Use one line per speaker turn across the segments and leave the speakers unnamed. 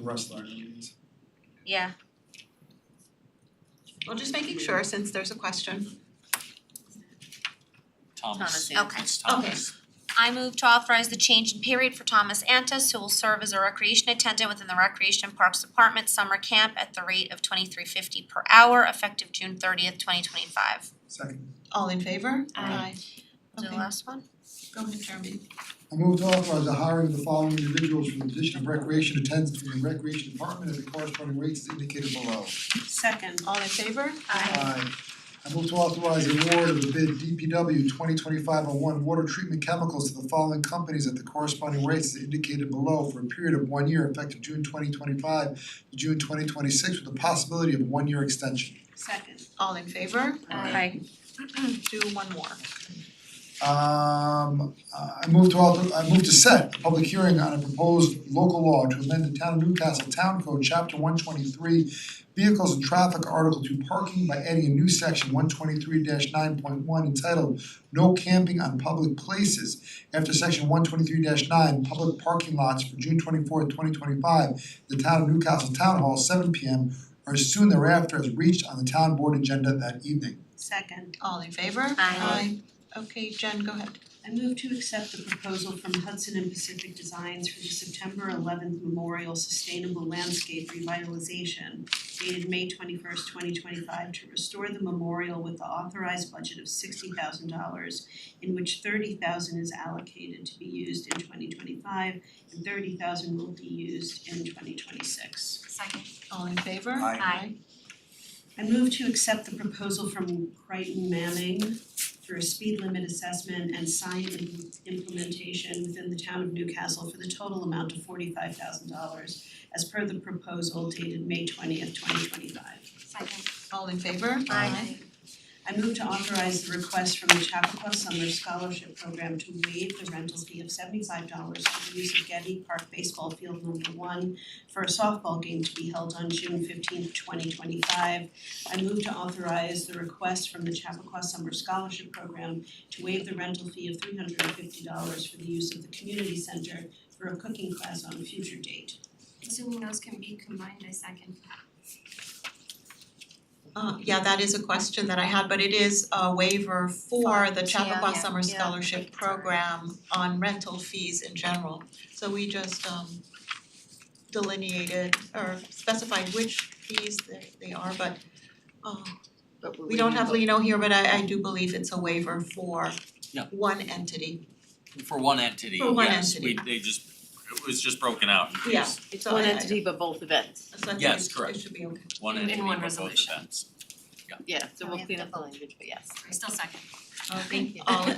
wrestler. I mean,
Yeah,
Well, just making sure since there's a question.
Thomas,
Thomas
Anthony,
Anthony.
Thomas.
I move to authorize the change in period for Thomas Antis, who will serve as a recreation attendant within the Recreation and Parks Department summer camp at the rate of twenty-three fifty per hour effective June thirtieth, twenty twenty-five.
Second,
All in favor?
Aye. Do the
Okay.
last one?
Go ahead, Jeremy.
I move to authorize the hiring of the following individuals for the position of recreation attendant for the recreation department at the corresponding rates as indicated below.
Second.
All in favor?
Aye. I move to authorize award of the bid DPW twenty twenty five oh one water treatment chemicals to the following companies at the corresponding rates as indicated below for a period of one year effective June twenty twenty five to June twenty twenty six with the possibility of one year extension.
Second.
All in favor?
Aye.
Do one more.
Um I move to author, I move to set a public hearing on a proposed local law to amend the town of Newcastle Town Code, chapter one twenty three, vehicles and traffic, article two, parking by adding a new section one twenty three nine point one entitled No Camping on Public Places after section one twenty three nine, public parking lots for June twenty fourth, twenty twenty five, the town of Newcastle Town Hall, seven P M or soon thereafter as reached on the town board agenda that evening.
Second.
All in favor?
Aye.
Aye. Okay, Jen, go ahead.
I move to accept the proposal from Hudson and Pacific Designs for the September eleventh Memorial Sustainable Landscape Revitalization dated May twenty-first, twenty twenty-five to restore the memorial with the authorized budget of sixty thousand dollars in which thirty thousand dollars is allocated to be used in twenty twenty-five and thirty thousand dollars will be used in twenty twenty-six.
Second.
All in favor?
Aye.
Aye.
I move to accept the proposal from Crichton Manning for a speed limit assessment and sign im- implementation within the town of Newcastle for the total amount of forty-five thousand dollars as per the proposal dated May twentieth, twenty twenty-five.
Second.
All in favor?
Aye.
I move to authorize the request from the Chappaqua Summer Scholarship Program to waive the rental fee of seventy-five dollars for the use of Getty Park Baseball Field Number One for a softball game to be held on June fifteenth, twenty twenty-five. I move to authorize the request from the Chappaqua Summer Scholarship Program to waive the rental fee of three hundred and fifty dollars for the use of the community center for a cooking class on a future date.
Assuming those can be combined, I second.
Uh yeah, that is a question that I had, but it is a waiver for the Chappaqua
Yeah,
Summer
yeah.
Scholarship Program on rental fees in general. So we just um delineated or specified which fees they they are, but uh
But
we don't have Lino here, but I I do believe it's a waiver for
Yeah.
one entity.
For one entity,
For one
yes,
entity.
we they just, it was just broken out in
Yeah,
case.
it's
One entity, but both events,
So I think
Yes,
it's-
correct.
it should be okay.
One
In- in
entity
one
for both
resolution.
events.
yeah, so
Oh,
we'll
yeah,
clean up the
double.
language, but yes.
I still second.
Thank you.
All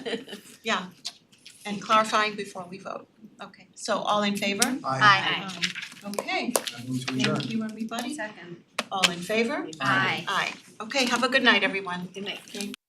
and clarifying before we vote. Okay, so all in favor?
I
Aye.
Um, Okay,
I move to adjourn.
thank you everybody.
Second.
All in favor?
Aye.
Aye. Okay, have a good night, everyone.
Good night.